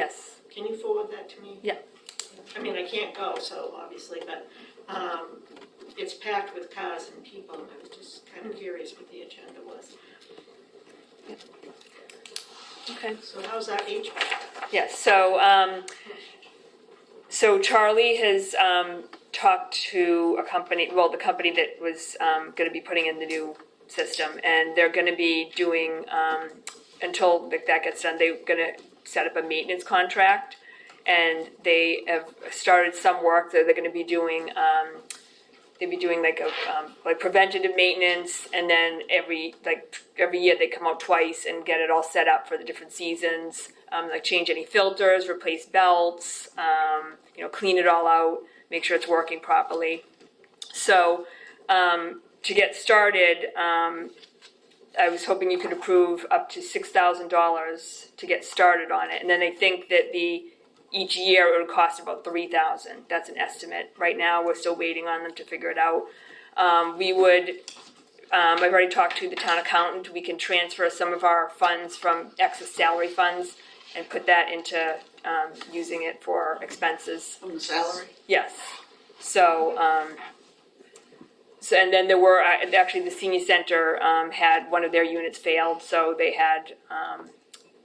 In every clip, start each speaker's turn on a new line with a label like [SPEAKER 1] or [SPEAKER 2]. [SPEAKER 1] Yes,
[SPEAKER 2] Can you forward that to me?
[SPEAKER 1] yeah,
[SPEAKER 2] I mean, I can't go, so obviously, but um, it's packed with cars and people, and I was just kind of curious what the agenda was.
[SPEAKER 1] okay.
[SPEAKER 2] So how's our HVAC?
[SPEAKER 1] Yeah, so, um, so Charlie has, um, talked to a company, well, the company that was, um, gonna be putting in the new system, and they're gonna be doing, um, until that that gets done, they're gonna set up a maintenance contract, and they have started some work that they're gonna be doing, um, they'd be doing like a um, like preventative maintenance and then every like every year they come out twice and get it all set up for the different seasons um, like change any filters replace belts um, you know clean it all out make sure it's working properly so um, to get started um, i was hoping you could approve up to $6000 to get started on it and then they think that the each year it would cost about three thousand. That's an estimate. Right now, we're still waiting on them to figure it out. Um, we would, um, I've already talked to the town accountant. We can transfer some of our funds from excess salary funds and put that into um, using it for expenses.
[SPEAKER 2] On the salary?
[SPEAKER 1] Yes. So, um, so and then there were uh, actually the senior center um, had one of their units failed, so they had um,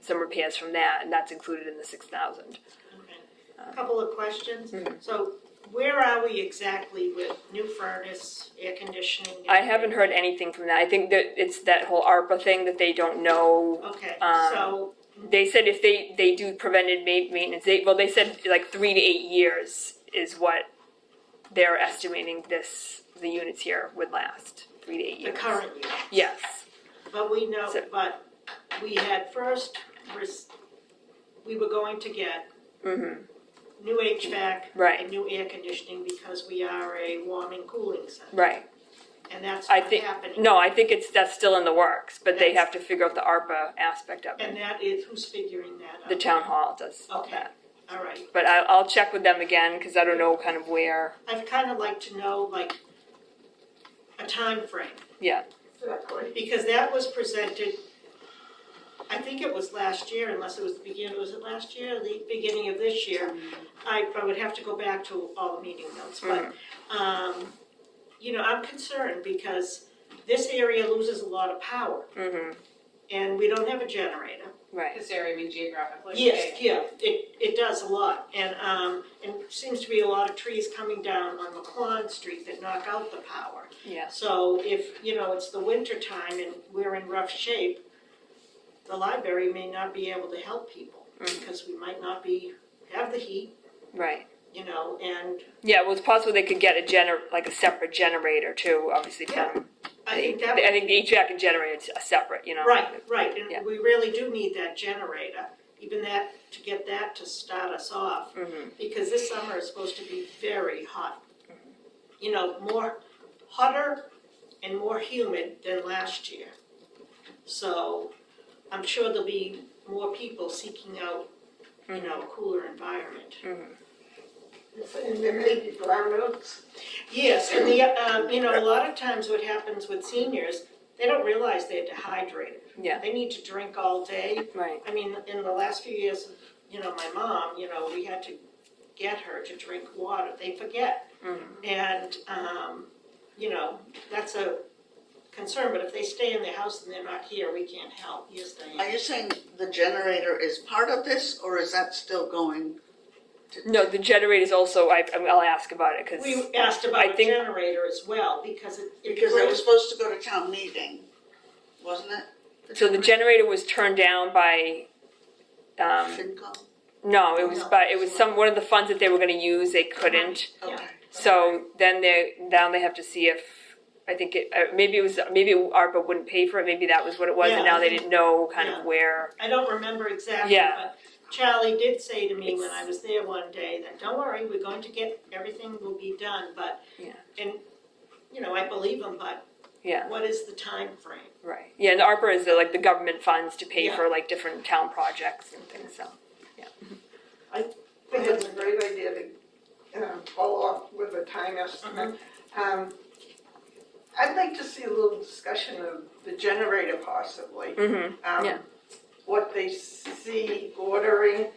[SPEAKER 1] some repairs from that, and that's included in the six thousand.
[SPEAKER 2] Okay. Couple of questions.
[SPEAKER 1] Hmm.
[SPEAKER 2] So where are we exactly with new furnace, air conditioning?
[SPEAKER 1] I haven't heard anything from that. I think that it's that whole ARPA thing that they don't know.
[SPEAKER 2] Okay,
[SPEAKER 1] um,
[SPEAKER 2] so,
[SPEAKER 1] They said if they, they do prevented ma- maintenance, they, well, they said like three to eight years is what they're estimating this, the units here would last, three to eight
[SPEAKER 2] the
[SPEAKER 1] years.
[SPEAKER 2] current year.
[SPEAKER 1] Yes,
[SPEAKER 2] But we know,
[SPEAKER 1] So-
[SPEAKER 2] but we had first, res- we were going to get
[SPEAKER 1] Mhm.
[SPEAKER 2] new HVAC.
[SPEAKER 1] Right.
[SPEAKER 2] And new air conditioning because we are a warm and cooling center,
[SPEAKER 1] right.
[SPEAKER 2] and that's
[SPEAKER 1] I
[SPEAKER 2] not
[SPEAKER 1] think-
[SPEAKER 2] happening.
[SPEAKER 1] No, I think it's, that's still in the works, but they have to figure out the ARPA aspect of
[SPEAKER 2] And
[SPEAKER 1] it.
[SPEAKER 2] that is, who's figuring that out?
[SPEAKER 1] The town hall does all
[SPEAKER 2] Okay.
[SPEAKER 1] that.
[SPEAKER 2] All right,
[SPEAKER 1] But I, I'll check with them again, cause I don't know kind of where,
[SPEAKER 2] I'd kind of like to know, like, a time frame.
[SPEAKER 1] yeah,
[SPEAKER 2] because that was presented, I think it was last year, unless it was the beginning, was it last year, or the beginning of this year? I, I would have to go back to all the meeting notes, but, um, you know, I'm concerned because this area loses a lot of power,
[SPEAKER 1] mhm,
[SPEAKER 2] and we don't have a generator.
[SPEAKER 1] right.
[SPEAKER 3] This area, I mean geographically.
[SPEAKER 2] Yes, yeah, it, it does a lot, and, um, and seems to be a lot of trees coming down on McQuon Street that knock out the power.
[SPEAKER 1] Yeah.
[SPEAKER 2] So if, you know, it's the winter time and we're in rough shape, the library may not be able to help people because we might not be, have the heat,
[SPEAKER 1] Right.
[SPEAKER 2] you know, and
[SPEAKER 1] Yeah, well, it's possible they could get a gener, like a separate generator too, obviously from.
[SPEAKER 2] I think that,
[SPEAKER 1] I think the HVAC and generator's are separate, you know?
[SPEAKER 2] right, right,
[SPEAKER 1] Yeah.
[SPEAKER 2] and we really do need that generator, even that, to get that to start us off.
[SPEAKER 1] Mm-hmm.
[SPEAKER 2] Because this summer is supposed to be very hot. You know, more, hotter and more humid than last year. So I'm sure there'll be more people seeking out, you know, a cooler environment.
[SPEAKER 1] Mm.
[SPEAKER 4] And then maybe brownouts.
[SPEAKER 2] Yes, and the, um, you know, a lot of times what happens with seniors, they don't realize they're dehydrated.
[SPEAKER 1] Yeah.
[SPEAKER 2] They need to drink all day.
[SPEAKER 1] Right.
[SPEAKER 2] I mean, in the last few years, you know, my mom, you know, we had to get her to drink water. They forget.
[SPEAKER 1] Mm-hmm.
[SPEAKER 2] And, um, you know, that's a concern, but if they stay in their house and they're not here, we can't help. Yes,
[SPEAKER 4] Are
[SPEAKER 2] Diane?
[SPEAKER 4] you saying the generator is part of this, or is that still going?
[SPEAKER 1] No, the generator's also, I, I'll ask about it, cause,
[SPEAKER 2] We asked
[SPEAKER 1] I
[SPEAKER 2] about a
[SPEAKER 1] think-
[SPEAKER 2] generator as well, because it. it
[SPEAKER 4] Because it was
[SPEAKER 2] brings-
[SPEAKER 4] supposed to go to town meeting, wasn't it?
[SPEAKER 1] so the generator was turned down by, um,
[SPEAKER 4] FinCom?
[SPEAKER 1] no, it was
[SPEAKER 2] No.
[SPEAKER 1] by, it was some, one of the funds that they were gonna use, they couldn't.
[SPEAKER 4] Okay.
[SPEAKER 1] So then they, now they have to see if, I think it, uh, maybe it was, maybe ARPA wouldn't pay for it, maybe that was what it was, and
[SPEAKER 2] Yeah,
[SPEAKER 1] now
[SPEAKER 2] I
[SPEAKER 1] they
[SPEAKER 2] think-
[SPEAKER 1] didn't know kind
[SPEAKER 2] yeah.
[SPEAKER 1] of where.
[SPEAKER 2] I don't remember exactly,
[SPEAKER 1] Yeah.
[SPEAKER 2] but Charlie did say to me when
[SPEAKER 1] It's-
[SPEAKER 2] I was there one day that, don't worry, we're going to get, everything will be done, but.
[SPEAKER 1] Yeah.
[SPEAKER 2] And, you know, I believe him, but
[SPEAKER 1] Yeah.
[SPEAKER 2] what is the time frame?
[SPEAKER 1] Right. Yeah, and ARPA is the, like the government funds to pay
[SPEAKER 2] Yeah.
[SPEAKER 1] for like different town projects and things. So
[SPEAKER 5] I think it's a great idea to um, follow up with a time estimate. Um, I'd like to see a little discussion of the generator possibly.
[SPEAKER 1] Mhm,
[SPEAKER 5] Um,
[SPEAKER 1] yeah.
[SPEAKER 5] What they see ordering,